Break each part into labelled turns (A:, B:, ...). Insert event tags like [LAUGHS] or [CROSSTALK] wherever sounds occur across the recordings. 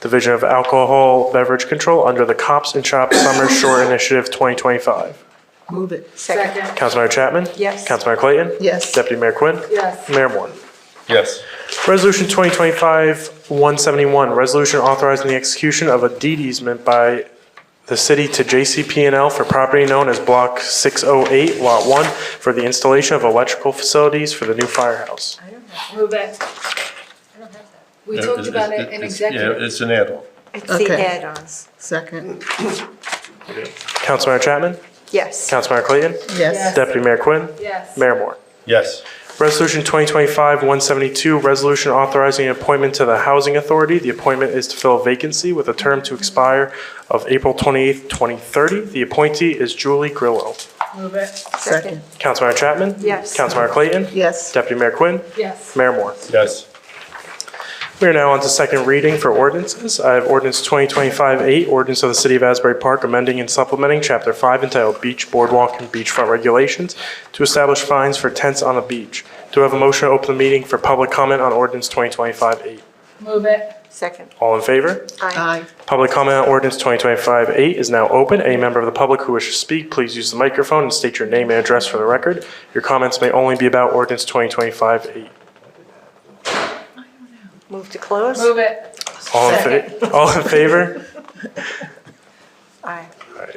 A: Division of Alcohol Beverage Control under the Cops and Shops Summer Short Initiative 2025.
B: Move it.
C: Second.
A: Councilmember Chapman?
B: Yes.
A: Councilmember Clayton?
B: Yes.
A: Deputy Mayor Quinn?
C: Yes.
A: Mayor Moore?
D: Yes.
A: Resolution 2025-171, resolution authorizing the execution of a deed easement by the city to JCP&L for property known as Block 608, Lot 1, for the installation of electrical facilities for the new firehouse.
C: Move it. We talked about it in
D: Yeah,
C: executive.
D: it's an add-on.
E: It's the
B: Okay.
E: add-ons.
B: Second.
A: Councilmember Chapman?
E: Yes.
A: Councilmember Clayton?
B: Yes.
A: Deputy Mayor Quinn?
C: Yes.
A: Mayor Moore?
D: Yes.
A: Resolution 2025-172, resolution authorizing an appointment to the Housing Authority. The appointment is to fill a vacancy with a term to expire of April 28th, 2030. The appointee is Julie Grillo.
C: Move it.
B: Second.
A: Councilmember Chapman?
E: Yes.
A: Councilmember Clayton?
B: Yes.
A: Deputy Mayor Quinn?
C: Yes.
A: Mayor Moore?
D: Yes.
A: We are now on to second reading for ordinances. I have ordinance 2025-8, ordinance of the City of Asbury Park amending and supplementing Chapter 5 entitled Beach Boardwalk and Beachfront Regulations to establish fines for tents on the beach. Do I have a motion to open the meeting for public comment on ordinance 2025-8?
C: Move it.
E: Second.
A: All in favor?
E: Aye.
B: Aye.
A: Public comment on ordinance 2025-8 is now open. Any member of the public who wishes to speak, please use the microphone and state your name and address for the record. Your comments may only be about ordinance 2025-8.
E: Move to close?
C: Move it.
A: All in fa- all in favor?
E: Aye.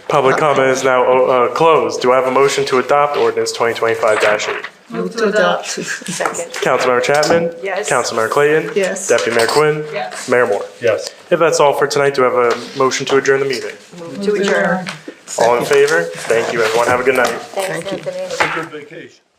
A: Public comment is now uh, closed. Do I have a motion to adopt ordinance 2025-8?
B: Move to adopt. [LAUGHS]
E: Second.
A: Councilmember Chapman?
E: Yes.
A: Councilmember Clayton?
B: Yes.
A: Deputy Mayor Quinn?
C: Yes.
A: Mayor Moore?
D: Yes.
A: If that's all for tonight, do I have a motion to adjourn the meeting?
E: To adjourn.
A: All in favor? Thank you, everyone. Have a good night.
E: Thanks, Anthony.
D: Good vacation.